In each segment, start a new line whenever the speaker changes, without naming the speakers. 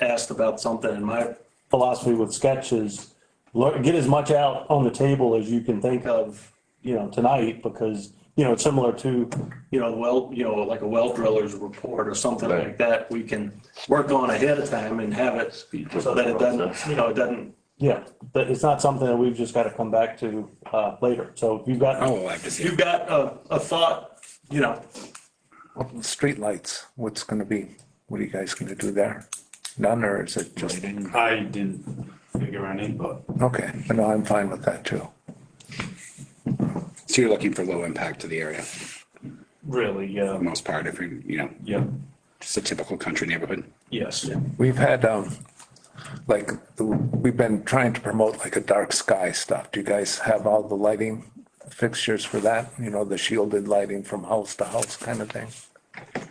asked about something and my philosophy with sketch is lear- get as much out on the table as you can think of, you know, tonight because, you know, it's similar to, you know, well, you know, like a well driller's report or something
Right.
like that. We can work on ahead of time and have it so that it doesn't, you know, it doesn't, yeah, but it's not something that we've just got to come back to, uh, later. So if you've got,
Oh, I can
if
see.
you've got a, a thought, you know,
Streetlights, what's gonna be, what are you guys gonna do there? None, or is it just,
Mm. I didn't figure any, but
okay, but no, I'm fine with that too.
So you're looking for low impact to the area for
really,
the
yeah,
most part, if you, you know,
yeah,
just a typical country neighborhood.
yes.
We've had, um, like, we've been trying to promote like a dark sky stuff. Do you guys have all the lighting fixtures for that? You know, the shielded lighting from house to house kind of thing?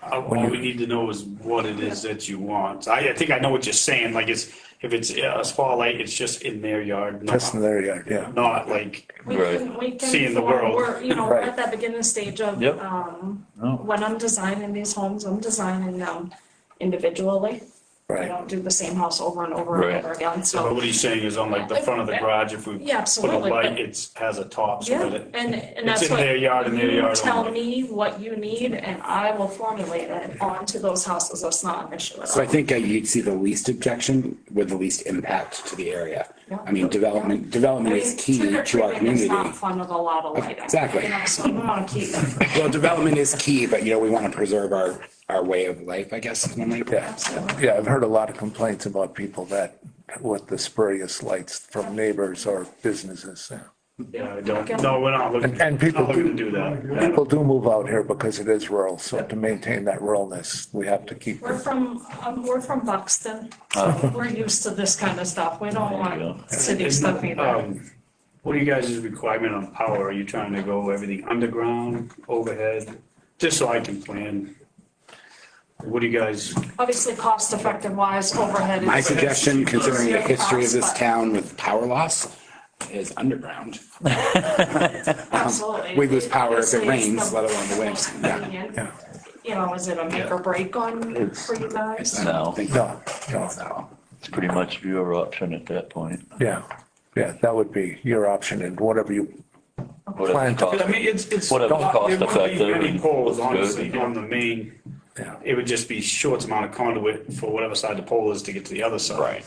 All all we need to know is what it is that you want. I, I think I know what you're saying, like it's, if it's uh, a spotlight, it's just in their yard,
Just in
not,
their yard, yeah.
not like,
We
Right.
can, we can.
Seeing the world.
We're, you know, we're
Right.
at that beginning stage of,
Yep.
um,
No.
when I'm designing these homes, I'm designing them individually. I
Right,
don't do the same house over and over and
Right.
over again,
but
so,
what he's saying is on like the front of the garage, if we
yeah,
put a
absolutely.
light,
but-
it's, has a top
Yeah,
so that it,
and, and
it's
that's
in
what.
their yard and their
you
yard
Tell
only.
me what you need and I will formulate it onto those houses. That's not an issue at
So I
all.
think uh, you'd see the least objection with the least impact to the area. I mean, development,
I
development
mean,
is key to our
trick-or-treating is
community.
not fun with a lot of lighting.
Exactly.
You know, so we want to keep them,
Well, development is key, but you know, we want to preserve our, our way of life, I guess. is one way to put it.
yeah.
absolutely.
Yeah, I've heard a lot of complaints about people that, with the spurious lights from neighbors or businesses. yeah.
yeah, I don't, no, we're not looking,
And- and people
not looking to
do-
do that.
People do move out here because it is rural, so to maintain that ruralness, we have to keep,
We're from, um, we're from Buxton, so we're used to this kind of stuff. We don't want city stuff either.
Um, What are you guys' requirement on power? Are you trying to go everything underground, overhead? Just so I can plan. What do you guys?
Obviously, cost effective wise, overhead
My
is.
suggestion, considering the history of this
But-
town with power loss, is underground.
Absolutely.
um, We lose power if
Obviously,
it
it's
rains,
the
let alone the wind.
most
Yeah.
convenient. You know, is it a make or break on for you guys?
I don't
No.
think
no, no,
so.
It's pretty much your option at that point.
yeah. Yeah, that would be your option and whatever you,
Whatever it
I
costs.
mean, it's, it's.
Whatever
not-
cost
there wouldn't be
effective
Many
and
poles,
good.
honestly, on the main,
yeah.
it would just be short amount of conduit for whatever side the pole is to get to the other side. Right.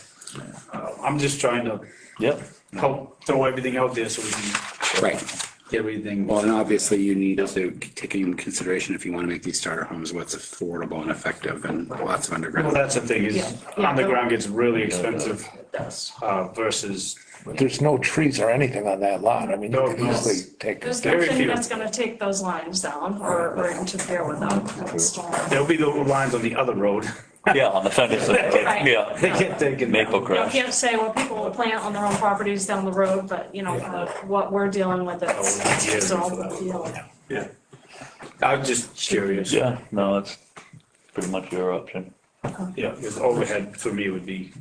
I'm just trying to
Yep.
help throw everything out there so we can.
Right.
Get everything.
Well, and obviously you need to take into consideration if you want to make these starter homes, what's affordable and effective and lots of
Well,
underground.
that's the thing
Yeah.
is
Yeah.
underground gets really expensive
It does.
uh, versus
But there's no trees or anything on that lot. I mean, you
No,
could
no.
easily take.
There's
Very
nothing
few.
that's gonna take those lines down or, or interfere with them. That's all.
There'll be the lines on the other road.
Yeah, on the fence, yeah,
They get taken. down.
maple
You
grass.
can't say what people will plant on their own properties down the road, but you know, uh, what we're dealing with, it's
Oh, yeah.
it's all the field.
Yeah. I'm just curious.
Yeah, no, it's pretty much your option.
Yeah, because overhead for me would be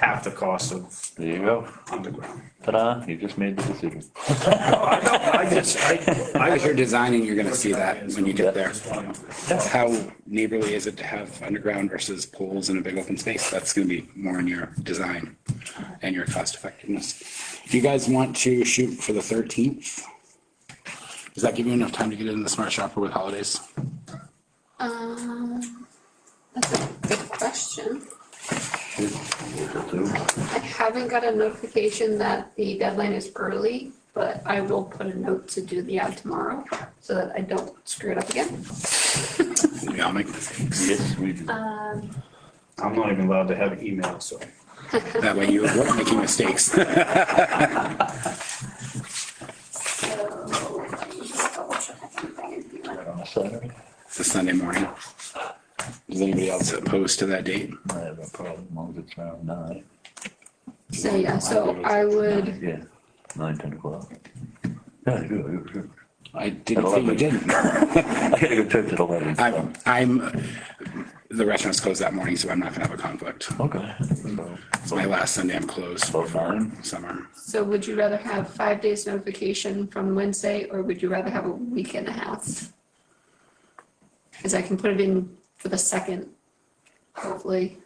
half the cost of
There you go.
underground.
Ta-da, you just made the decision.
I don't, I just,
As
I,
you're designing, you're going to see that when you get there.
I.
How neighborly is it to have underground versus poles in a big open space? That's going to be more in your design and your cost effectiveness. Do you guys want to shoot for the 13th? Does that give you enough time to get in the smart shopper with holidays?
Um, that's a good question. I haven't got a notification that the deadline is early, but I will put a note to do the ad tomorrow so that I don't screw it up again.
We all make mistakes.
Yes, we do.
Um,
I'm not even allowed to have email, so.
That way you avoid making mistakes.
so let me just double check. I think I can do that.
On a Saturday,
It's a Sunday morning. Is anybody else opposed to that date?
I have a problem, as long as it's around nine.
So, yeah, so I would,
Yeah, nine, ten o'clock. Yeah, I do, I go to church.
I didn't think you didn't.
I gotta go to church at eleven.
I'm, I'm, the restaurant's closed that morning, so I'm not gonna have a conflict.
Okay.
It's my last Sunday I'm closed for summer.
so would you rather have five days notification from Wednesday or would you rather have a week and a half? Cause I can put it in for the second, hopefully.